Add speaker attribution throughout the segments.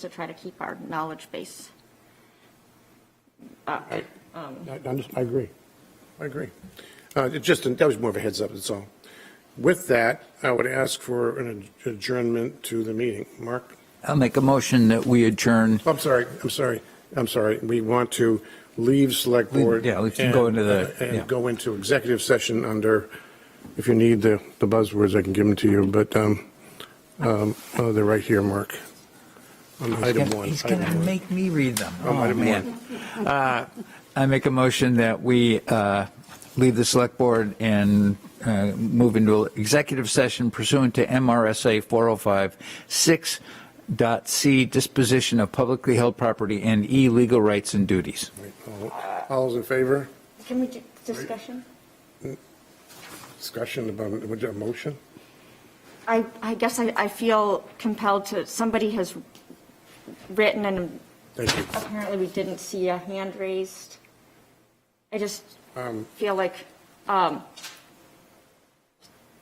Speaker 1: to try to keep our knowledge base.
Speaker 2: I, I under- I agree. I agree. Uh, it Just, that was more of a heads up, that's all. With that, I would ask for an adjournment to the meeting. Mark? Oh,
Speaker 3: I'll make a motion that we adjourn.
Speaker 2: I'm sorry, I'm sorry, I'm sorry. We want to leave select
Speaker 3: Leave-
Speaker 2: board.
Speaker 3: yeah, we can
Speaker 2: and- uh,
Speaker 3: go into the- yeah.
Speaker 2: And go into executive session under, if you need the the buzzwords, I can give them to you, but um, um, oh, they're right here, Mark. On item one.
Speaker 3: He's going to
Speaker 2: item one.
Speaker 3: make me read them.
Speaker 2: Um,
Speaker 3: Oh,
Speaker 2: item one.
Speaker 3: man. Uh, I make a motion that we uh, leave the select board and uh, move into executive session pursuant to MRSA 4056 dot C, disposition of publicly held property and E, legal rights and duties.
Speaker 2: All- All those in favor?
Speaker 1: Can we do discussion?
Speaker 2: Discussion about, would you have a motion?
Speaker 1: I, I guess I, I feel compelled to, somebody has written and
Speaker 2: Thank you.
Speaker 1: apparently we didn't see a hand raised. I just feel like um,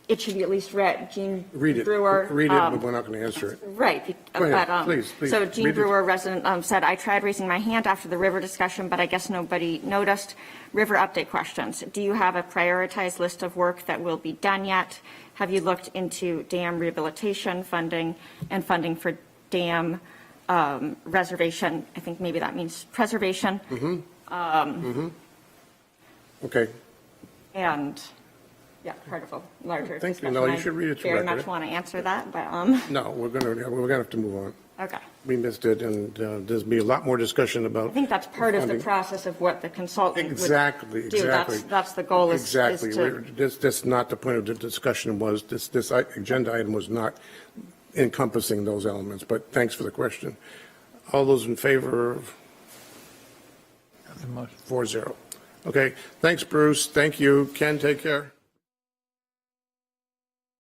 Speaker 1: it should be at least read. Gene
Speaker 2: Read it.
Speaker 1: Brewer.
Speaker 2: Read it, but
Speaker 1: um,
Speaker 2: we're not going to answer it.
Speaker 1: Right. be-
Speaker 2: Go ahead,
Speaker 1: but, um,
Speaker 2: please, please,
Speaker 1: So Gene
Speaker 2: read it.
Speaker 1: Brewer, resident, um, said, "I tried raising my hand after the river discussion, but I guess nobody noticed. River update questions. Do you have a prioritized list of work that will be done yet? Have you looked into dam rehabilitation funding and funding for dam um, reservation? I think maybe that means preservation.
Speaker 2: Mm-hmm. Okay.
Speaker 1: And, yeah, part of a larger
Speaker 2: Thank you.
Speaker 1: discussion.
Speaker 2: No, you
Speaker 1: I
Speaker 2: should read it to
Speaker 1: Very
Speaker 2: record
Speaker 1: much
Speaker 2: it.
Speaker 1: want to answer that, but, um,
Speaker 2: No, we're going to, we're going to have to move on.
Speaker 1: okay.
Speaker 2: We missed it, and uh, there'll be a lot more discussion about.
Speaker 1: I think that's part of the
Speaker 2: funding.
Speaker 1: process of what the consultant would do.
Speaker 2: Exactly, exactly.
Speaker 1: That's, that's the goal is, is
Speaker 2: Exactly. We're-
Speaker 1: to,
Speaker 2: This, this, not the point of the discussion was, this, this i- agenda item was not encompassing those elements, but thanks for the question. All those in favor of four zero. Okay, thanks, Bruce. Thank you. Ken, take care.